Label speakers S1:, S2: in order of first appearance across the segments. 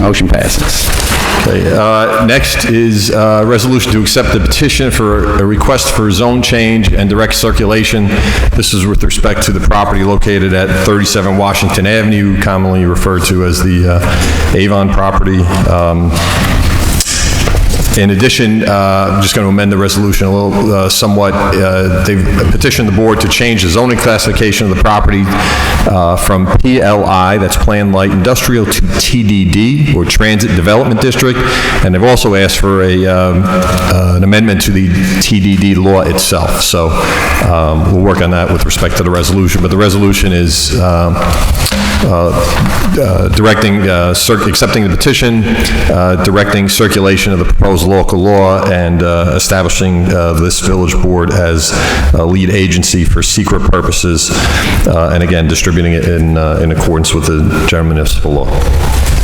S1: Motion passes.
S2: Okay, uh, Next is uh resolution to accept the petition for a request for zone change and direct circulation. This is with respect to the property located at 37 Washington Avenue, commonly referred to as the uh, Avon property. Um, in addition, uh, I'm just going to amend the resolution a little uh, somewhat. Uh, They've petitioned the board to change the zoning classification of the property uh, from PLI, that's Planned Light Industrial, to TDD, or Transit Development District, and they've also asked for a, um, uh, an amendment to the TDD law itself. So um, we'll work on that with respect to the resolution, but the resolution is um, uh, directing, uh, cir- accepting the petition, uh, directing circulation of the proposed local law, and uh, establishing uh, this village board as a lead agency for secret purposes, uh, and again, distributing it in uh, in accordance with the general municipal law.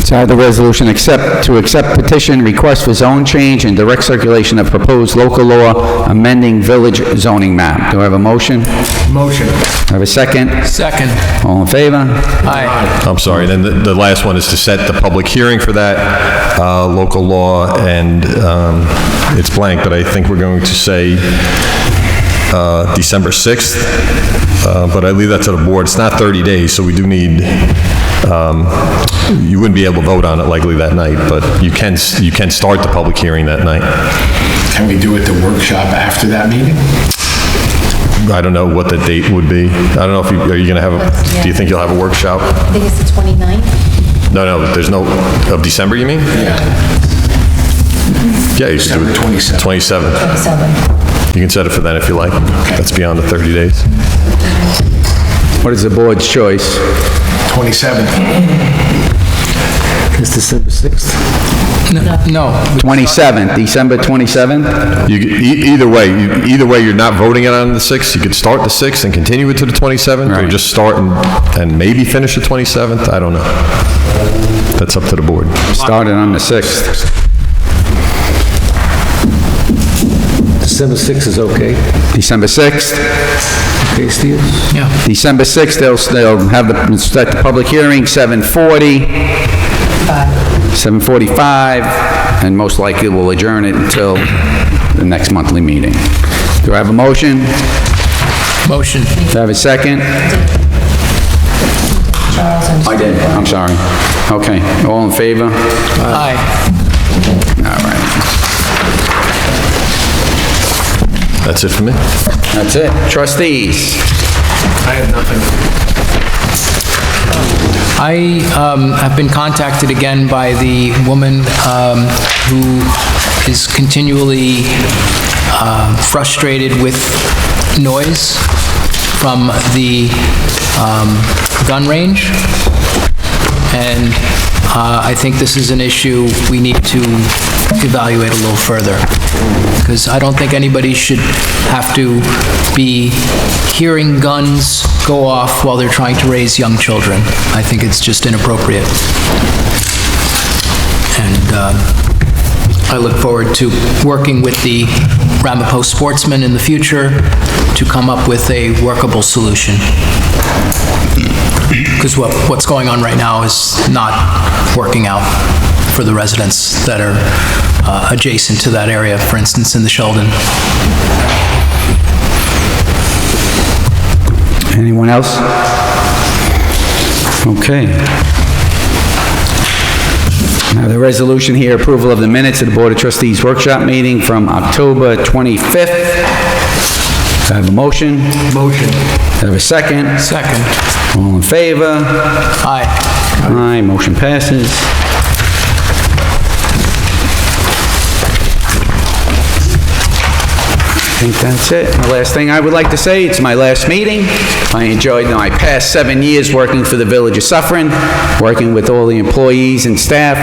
S1: So I have the resolution accept, to accept petition, request for zone change and direct circulation of proposed local law amending village zoning map. Do I have a motion? Do I
S3: Motion.
S1: have a second?
S3: Second.
S1: All in favor?
S3: Aye.
S2: I'm sorry, then the- the last one is to set the public hearing for that uh, local law, and um, it's blank, but I think we're going to say uh, December 6th, uh, but I leave that to the board. It's not 30 days, so we do need, um, you wouldn't be able to vote on it likely that night, but you can, you can start the public hearing that night.
S4: Can we do it the workshop after that meeting?
S2: I don't know what the date would be. I don't know if you, are you going to have, a do you think you'll have a workshop?
S5: I think it's the 29th.
S2: No, no, there's no, of December, you mean?
S4: Yeah.
S2: Yeah, you should do it.
S4: 27th.
S2: 27th.
S5: Seven.
S2: You can set it for that if you like. That's beyond the 30 days.
S1: What is the board's choice?
S4: 27th.
S6: It's December 6th.
S3: No,
S1: 27th, December 27th?
S2: You, e- either way, you- either way, you're not voting it on the 6th. You could start the 6th and continue it to the 27th, or
S1: Right.
S2: just start and, and maybe finish the 27th. I don't know. That's up to the board.
S1: Started on the 6th.
S6: December 6th is okay.
S1: December 6th?
S6: Okay, Steve?
S3: yeah.
S1: December 6th, they'll, they'll have the, start the public hearing, 7:40. 7:45, and most likely we'll adjourn it until the next monthly meeting. Do I have a motion? Do
S3: Motion.
S1: I have a second?
S5: Charles, I'm sorry.
S1: did. I'm sorry. Okay, all in favor?
S3: Aye.
S2: That's it for me.
S1: That's it. Trustees?
S4: I have nothing.
S3: I um, have been contacted again by the woman um, who is continually uh, frustrated with noise from the um, gun range, and uh, I think this is an issue we need to evaluate a little further, because I don't think anybody should have to be hearing guns go off while they're trying to raise young children. I think it's just inappropriate. And um, I look forward to working with the Ramapo sportsmen in the future to come up with a workable solution. Because what, what's going on right now is not working out for the residents that are uh, adjacent to that area, for instance, in the Sheldon.
S1: Anyone else? Okay. Now, the resolution here, approval of the minutes of the Board of Trustees workshop meeting from October 25th. Do I have a motion? Motion. I have a second?
S3: Second.
S1: All in favor?
S3: Aye.
S1: Aye, motion passes. I think that's it. The last thing I would like to say, it's my last meeting. I enjoyed my past seven years working for the Village of Suffering, working with all the employees and staff.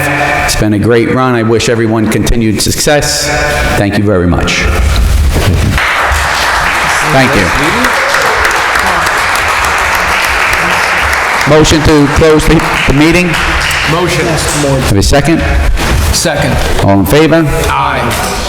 S1: It's been a great run. I wish everyone continued success. Thank you very much. Thank you. Motion to close the the meeting? Motion. Have a second?
S3: Second.
S1: All in favor?
S3: Aye.